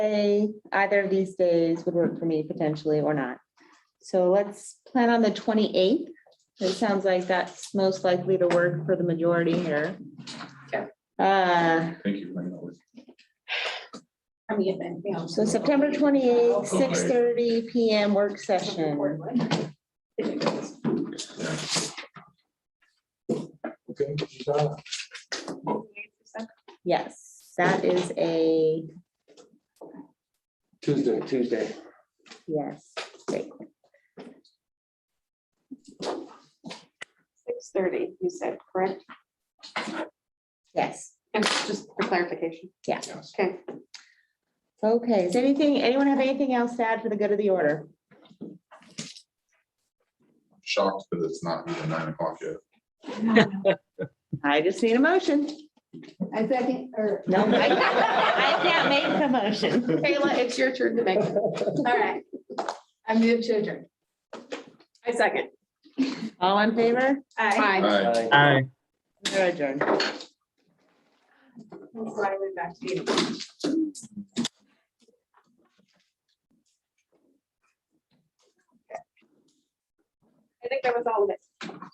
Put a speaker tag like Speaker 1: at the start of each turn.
Speaker 1: Day, either of these days would work for me potentially or not. So let's plan on the twenty-eighth. It sounds like that's most likely to work for the majority here.
Speaker 2: Okay.
Speaker 1: Uh,
Speaker 3: Thank you for bringing that with.
Speaker 2: I mean, if anything else-
Speaker 1: so September twenty-eighth, six thirty PM work session.
Speaker 4: Okay, Susanna,
Speaker 1: Yes, that is a,
Speaker 4: Tuesday, Tuesday.
Speaker 1: yes, great.
Speaker 2: Six thirty, you said, correct?
Speaker 1: Yes.
Speaker 2: And just for clarification.
Speaker 1: Yeah.
Speaker 4: Yes.
Speaker 2: Okay.
Speaker 1: Okay, is anything, anyone have anything else to add for the good of the order?
Speaker 3: Shocked that it's not even nine o'clock yet.
Speaker 1: I just need a motion.
Speaker 2: I second, or.
Speaker 1: No, I I can't make the motion.
Speaker 2: Kayla, it's your turn to make. it. All right. I'm new to adjourn. I second.
Speaker 1: All in favor?
Speaker 2: Aye.
Speaker 3: Aye.
Speaker 5: Aye.
Speaker 1: We're adjourned.
Speaker 2: That's why I went back to you. I think that was all of it.